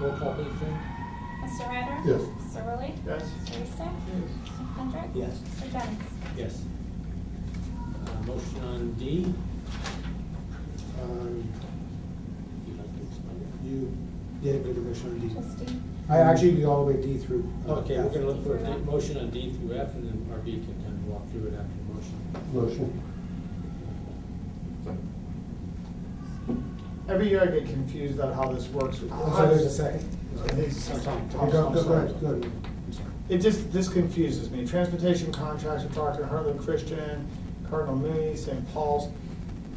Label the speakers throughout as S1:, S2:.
S1: Roll call please, Jane.
S2: Mr. Ryder?
S3: Yes.
S2: Mr. Rowley?
S3: Yes.
S2: Mr. Eastick?
S3: Yes.
S2: Mr. Hendrick?
S1: Yes.
S2: Mr. Jennings?
S1: Yes. Uh, Motion on D.
S4: Um,
S1: You'd like to explain
S4: You did a good motion on D.
S2: Trustee?
S4: I actually did all the way D through.
S1: it?
S4: uh,
S1: Okay, we're
S4: F.
S1: gonna look for a motion on D through F, and then RB can kind of walk through it after the motion.
S3: Motion.
S5: Every year I get confused about how this works.
S4: I'm sorry, there's a second. Go, go, go ahead, go ahead. I'm sorry.
S5: It just, this confuses me. Transportation contracts, we're talking Harlan Christian, Cardinal Mooney, St. Paul's.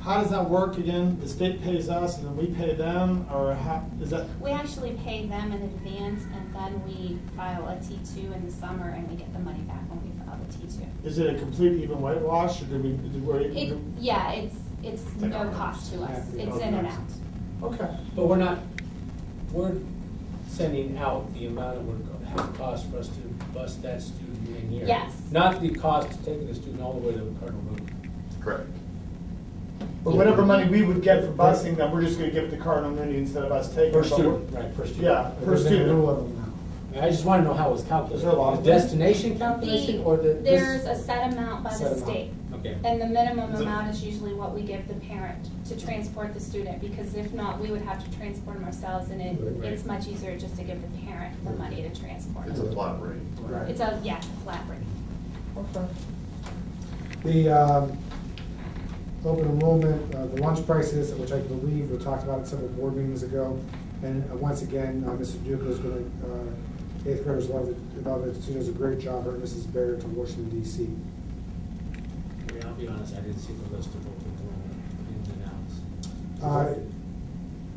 S5: How does that work again? The state pays us and then we pay them, or how, is that,
S2: We actually pay them in advance and then we file a T two in the summer and we get the money back when we file the T two.
S5: is it a complete even whitewash, or do we, do
S2: It,
S5: we?
S2: yeah, it's, it's
S5: like
S2: no
S5: our-
S2: cost to us.
S4: Yeah,
S2: It's
S4: okay.
S2: in and out.
S5: Okay,
S1: But we're not, we're sending out the amount it would go- have cost for us to bus that student in here.
S2: Yes.
S1: Not the cost of taking the student all the way to Cardinal Mooney.
S6: Correct.
S5: but whatever money we would get for busing them, we're just gonna give it to Cardinal Mooney instead of us taking it.
S1: Per
S5: but we're-
S1: student, right, per student.
S5: Yeah, per
S4: We're in the middle
S5: student.
S4: of them now.
S1: I just wanna know how it was
S5: Is there a lot
S1: calculated,
S5: of
S1: the destination calculation or the?
S2: The,
S1: this-
S2: there's a set amount by
S4: Set
S2: the
S4: amount.
S2: state.
S1: Okay,
S2: And the minimum
S5: Is it-
S2: amount is usually what we give the parent to transport the student, because if not, we would have to transport them ourselves, and it,
S1: Right, right.
S2: it's much easier just to give the parent the money to transport.
S6: It's a flat rate.
S2: It's a, yeah, it's a flat rate.
S5: Okay.
S4: The um, open enrollment, uh, the lunch prices, which I believe we talked about at several board meetings ago. And uh, once again, uh, Mr. Duke is going to, eighth graders love it, love it. She does a great job, her and Mrs. Barrett from Washington DC.
S1: I mean, I'll be honest, I didn't see the list of what we're doing in and outs.
S4: Uh,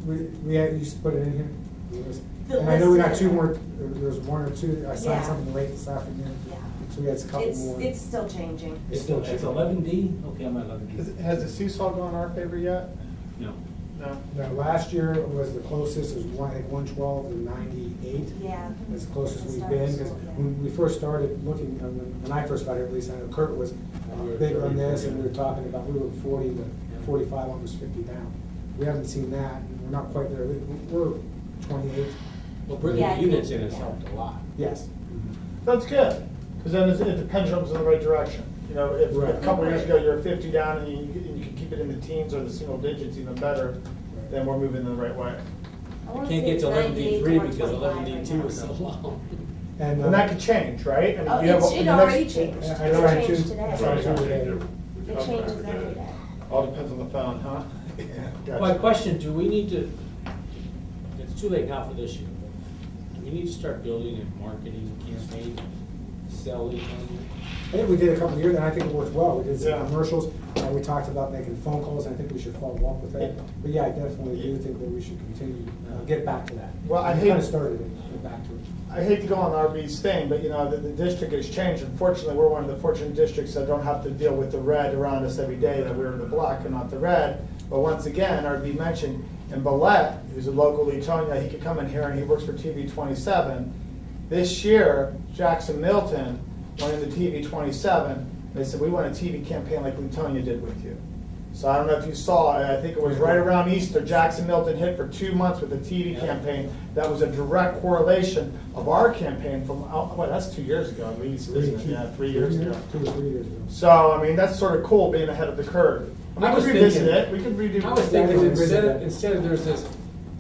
S4: We, we, had- you just put it in here?
S7: The
S4: And I know we
S7: list
S4: got
S7: is-
S4: two more, there there was one or two, I
S7: Yeah.
S4: signed something late this afternoon.
S7: Yeah.
S4: So we had a couple
S7: It's,
S4: more.
S7: it's still changing.
S4: It's still
S1: It's
S4: cheaper.
S1: eleven D? Okay, I'm at eleven
S5: Has-
S1: D.
S5: Has the seesaw gone in our favor yet?
S1: No.
S5: No.
S4: Now, last year was the closest, it was one, at one twelve and ninety-eight.
S7: Yeah.
S4: As close as
S7: That's
S4: we've
S7: not
S4: been,
S7: school,
S4: because
S7: yeah.
S4: when we first started looking, uh, when when I first started, at least, I know Kurt was uh,
S1: We were
S4: big on
S1: 30,
S4: this, and we were
S1: yeah.
S4: talking about, we were forty to forty-five, almost fifty down. We haven't seen that, and we're not quite there, We- we're twenty-eight,
S1: Well,
S7: Yeah, I
S1: bringing
S7: think-
S1: units in has
S7: yeah.
S1: helped a lot.
S4: yes.
S5: That's good, because then it's- it, the pendulum's in the right direction. You know, if
S4: Right.
S5: a couple years ago, you're fifty down and you, and you can keep it in the teens or the single digits even better, then we're moving in the right way.
S7: I
S1: I
S7: wanna
S1: can't
S7: say
S1: get
S7: it's
S1: to eleven D
S7: 98
S1: three
S7: or
S1: because eleven D
S7: 125 right
S1: two
S7: now.
S1: is so long.
S4: And.
S5: And that
S4: uh,
S5: could change, right? I mean,
S7: Oh,
S5: you have-
S7: it,
S5: in
S7: it
S5: the
S7: already
S5: next-
S7: changed.
S4: I- I
S7: It
S4: tried to-
S7: changed
S4: I
S7: today.
S4: tried to-
S7: It changes every day.
S5: All depends on the phone, huh? Gotcha.
S1: My question, do we need to, it's too late now for this year, but do we need to start building a marketing campaign, selling?
S4: I think we did a couple of years, and I think it worked well. We did
S5: Yeah.
S4: some commercials, and we talked about making phone calls, and I think we should follow up with that.
S5: Yeah.
S4: But yeah, I definitely do think that we should continue, uh, get back to that.
S5: Well, I
S4: Kind
S5: hate-
S4: of started it, get back to it.
S5: I hate to go on RB's thing, but you know, the, the district has changed. Unfortunately, we're one of the fortunate districts that don't have to deal with the red around us every day, that we're in the black and not the red. But once again, RB mentioned, and Ballet, who's a local Letonia, he could come in here and he works for TV twenty-seven. This year, Jackson Milton went into TV twenty-seven, they said, we want a TV campaign like Letonia did with you. So I don't know if you saw, I think it was right around Easter, Jackson Milton hit for two months with a TV
S1: Yeah.
S5: campaign. That was a direct correlation of our campaign from, oh, well, that's two years ago at least, isn't it? Yeah, three years ago.
S4: Two or three years ago.
S5: So, I mean, that's sort of cool being ahead of the curve. We
S1: I
S5: could
S1: was
S5: revisit
S1: thinking-
S5: it, we could redo.
S1: I was
S4: Yeah, we
S1: thinking,
S4: can
S1: instead
S4: visit
S1: of,
S4: that.
S1: instead of there's this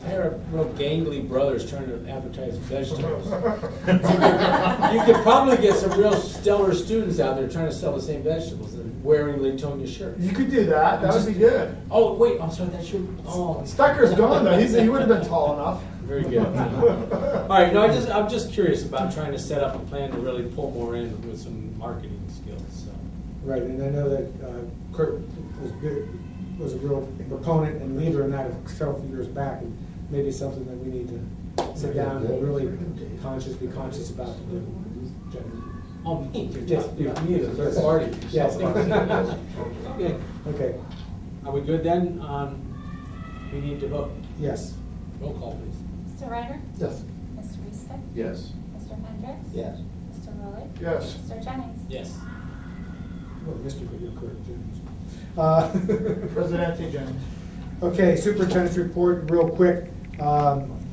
S1: pair of real gangly brothers trying to advertise vegetables, you could probably get some real stellar students out there trying to sell the same vegetables and wearing Latonia shirts.
S5: You could do that, that would be good.
S1: Oh, wait, I'm sorry, that's your, oh.
S5: Stucker's gone though, he's, he would have been tall enough.
S1: Very good. All right, no, I just, I'm just curious about trying to set up a plan to really pull more in with some marketing skills, so.
S4: Right, and I know that uh, Kurt was good, was a real proponent and leader in that several years back, and maybe it's something that we need to sit down and really conscious, be conscious about.
S1: Oh, me, you're
S4: Yes,
S1: just,
S4: you,
S1: you
S4: you, the third party, yes.
S1: Okay,
S4: Okay,
S1: are we good then? Um, we need to vote.
S4: yes.
S1: Roll call, please.
S2: Mr. Ryder?
S3: Yes.
S2: Mr. Eastick?
S6: Yes.
S2: Mr. Hendricks?
S3: Yes.
S2: Mr. Rowley?
S5: Yes.
S2: Mr. Jennings?
S1: Yes.
S4: Well, Mr. Goodyear, Kurt Jones. Uh,
S5: Presidente Jones.
S4: Okay, superintendent's report, real quick. Um,